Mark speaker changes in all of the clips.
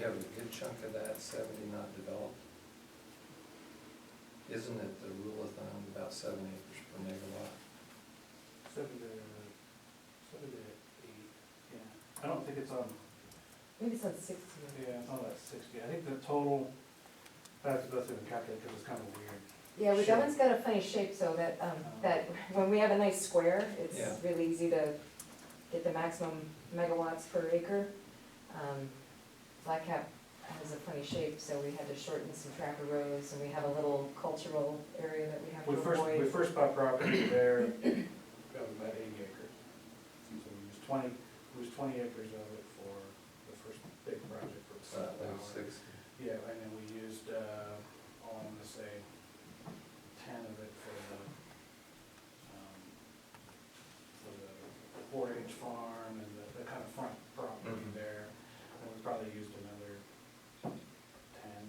Speaker 1: have a good chunk of that seventy not developed. Isn't it the rule of thumb about seven acres per megawatt?
Speaker 2: Seven to, seven to eight, yeah. I don't think it's on,
Speaker 3: Maybe it's like sixty.
Speaker 2: yeah, it's on that sixty. I think the total, I have to go through and calculate because it's kind of weird.
Speaker 3: Yeah, well,
Speaker 2: Shape.
Speaker 3: that one's got a funny shape, so that, um, that when we have a nice square, it's
Speaker 1: Yeah.
Speaker 3: really easy to get the maximum megawatts per acre. Um, Black Cap has a funny shape, so we had to shorten some tracker rows, and we have a little cultural area that we have to
Speaker 2: We first, we
Speaker 3: avoid.
Speaker 2: first bought property there of about eighty acres. So we used twenty, we used twenty acres of it for the first big project for the
Speaker 1: It's not like
Speaker 2: sunflower.
Speaker 1: six.
Speaker 2: Yeah, and then we used, uh, oh, I'm gonna say ten of it for the, um, for the four H farm and the, the kind of front property
Speaker 1: Mhm.
Speaker 2: there. And we probably used another ten.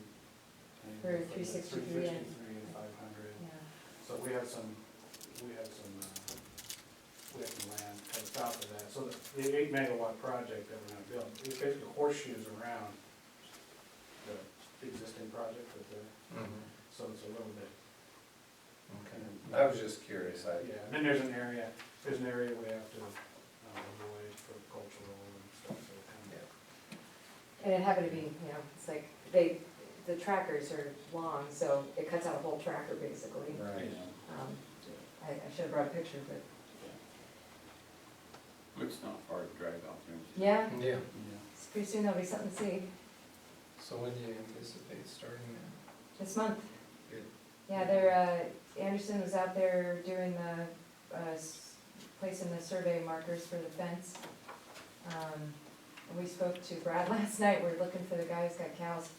Speaker 2: and
Speaker 3: For 363 and-
Speaker 2: 363 and five hundred.
Speaker 3: Yeah.
Speaker 2: So we have some, we have some, uh, we have some land kind of south of that. So the- the eight megawatt project that we're gonna build, it basically horseshoes around the existing project with the,
Speaker 1: Mhm,
Speaker 2: so it's a little bit
Speaker 1: okay.
Speaker 2: kind of.
Speaker 1: I was just curious, I,
Speaker 2: Yeah, and then there's an area, there's an area we have to uh, avoid for cultural and stuff, so it kind
Speaker 1: yeah,
Speaker 2: of.
Speaker 3: And it happened to be, you know, it's like, they, the trackers are long, so it cuts out a whole tracker, basically.
Speaker 1: right.
Speaker 3: Um, I, I should have brought a picture, but,
Speaker 4: It's not far to drive out there. and see.
Speaker 3: yeah,
Speaker 1: Yeah,
Speaker 3: it's pretty soon there'll be something to see,
Speaker 1: so when do you anticipate starting that?
Speaker 3: this month.
Speaker 1: Good.
Speaker 3: Yeah, there, uh, Anderson was out there doing the, uh, s- placing the survey markers for the fence. Um, and we spoke to Brad last night, we're looking for the guy who's got cows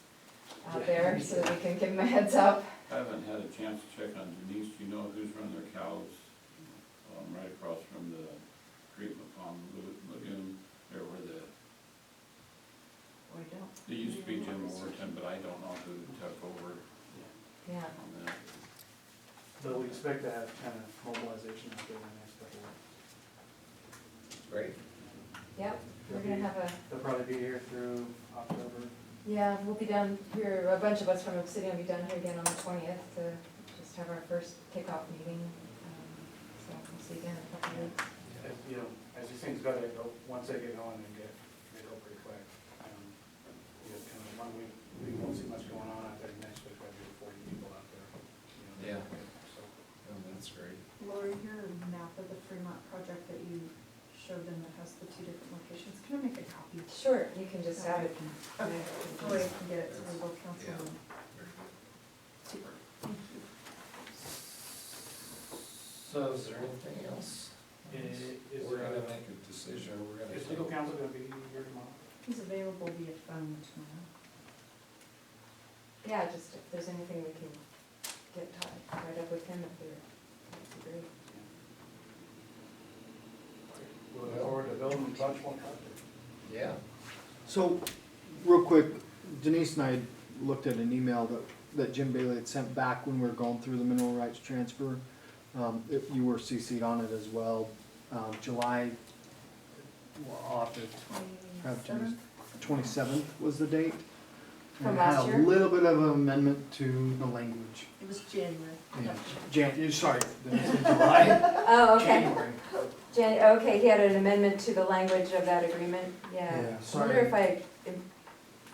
Speaker 3: out there, so that we can give him a heads up.
Speaker 4: I haven't had a chance to check on Denise, do you know who's running their cows? Um, right across from the treatment pond Lu- lagoon, there where the,
Speaker 3: We don't.
Speaker 4: they used to be Jim Overton, but I don't know who took over
Speaker 3: Yeah,
Speaker 4: on that.
Speaker 2: So we expect to have kind of mobilization out there in the next couple of weeks.
Speaker 1: Great.
Speaker 3: yep, we're gonna have a,
Speaker 2: They'll probably be here through October.
Speaker 3: yeah, we'll be down here, a bunch of us from Obsidian will be down here again on the twentieth to just have our first kickoff meeting. Um, So we'll see you again in a couple of weeks.
Speaker 2: As, Uh, you know, as these things go, they go, once they get going, they get, they go pretty quick. Um, You know, kind of one week, we won't see much going on out there, next week probably be forty people out there. you
Speaker 1: Yeah.
Speaker 2: know, So,
Speaker 1: Oh, that's great.
Speaker 5: Lori, your map of the Fremont project that you showed them that has the two different locations, can I make a copy?
Speaker 3: Sure, you can just have it.
Speaker 5: Lori can get it to the local council.
Speaker 1: Very good.
Speaker 5: Super, thank you.
Speaker 1: So is there anything else?
Speaker 2: Is, is,
Speaker 1: We're gonna
Speaker 2: uh,
Speaker 1: make a decision, we're gonna.
Speaker 2: is legal counsel gonna be here tomorrow?
Speaker 5: He's available via phone tomorrow.
Speaker 3: Yeah, just if there's anything we can get tied right up with him if we're, that'd be great.
Speaker 2: We'll look forward to building a bunch more projects.
Speaker 1: Yeah,
Speaker 6: So, real quick, Denise and I had looked at an email that, that Jim Bailey had sent back when we were going through the mineral rights transfer. Um, if you were CC'd on it as well, um, July, well, I'll have to have Jim's, twenty-seventh was the date.
Speaker 3: From
Speaker 6: And
Speaker 3: last
Speaker 6: had
Speaker 3: year?
Speaker 6: a little bit of an amendment to the language.
Speaker 5: It was January.
Speaker 6: in Jan, sorry, Denise, in July,
Speaker 3: Oh, okay.
Speaker 6: January.
Speaker 3: Jan, okay, he had an amendment to the language of that agreement, yeah.
Speaker 6: Yeah,
Speaker 3: I wonder
Speaker 6: sorry.
Speaker 3: if I,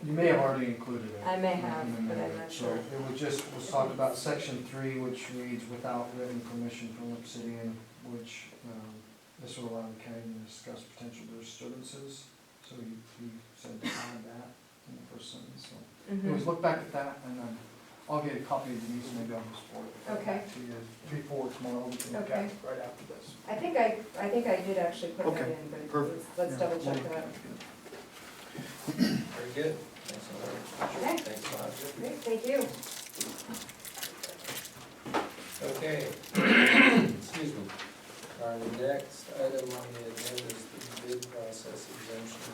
Speaker 6: You may have already included it.
Speaker 3: I may have,
Speaker 6: in the
Speaker 3: but I'm
Speaker 6: minute.
Speaker 3: not
Speaker 6: So
Speaker 3: sure.
Speaker 6: It was just, was talked about section three, which reads without written permission from Obsidian, which, um, this will allow the county to discuss potential disturbances. So you, you said behind that in the first sentence, so. Anyways,
Speaker 3: Mhm.
Speaker 6: look back at that and then I'll get a copy of Denise, maybe I'll just forward it
Speaker 3: Okay.
Speaker 6: back to you before tomorrow, we can look at it right after this.
Speaker 3: I think I, I think I did actually put that
Speaker 6: Okay,
Speaker 3: in, but
Speaker 6: perfect.
Speaker 3: let's- let's double check
Speaker 6: Yeah.
Speaker 3: that.
Speaker 1: very good. Thanks a lot.
Speaker 3: Okay.
Speaker 1: Thanks a lot.
Speaker 3: Great, thank you.
Speaker 1: Okay. Excuse me. Our next item on the agenda is the bid process exemption.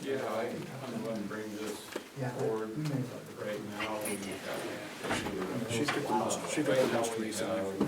Speaker 4: Yeah, I kind of want to bring this
Speaker 6: Yeah.
Speaker 4: forward
Speaker 6: We may-
Speaker 4: right now. We've got-
Speaker 6: She's got the most- she got the
Speaker 4: Right now
Speaker 6: most
Speaker 4: we
Speaker 6: recent, I
Speaker 4: have
Speaker 6: think.
Speaker 2: uh,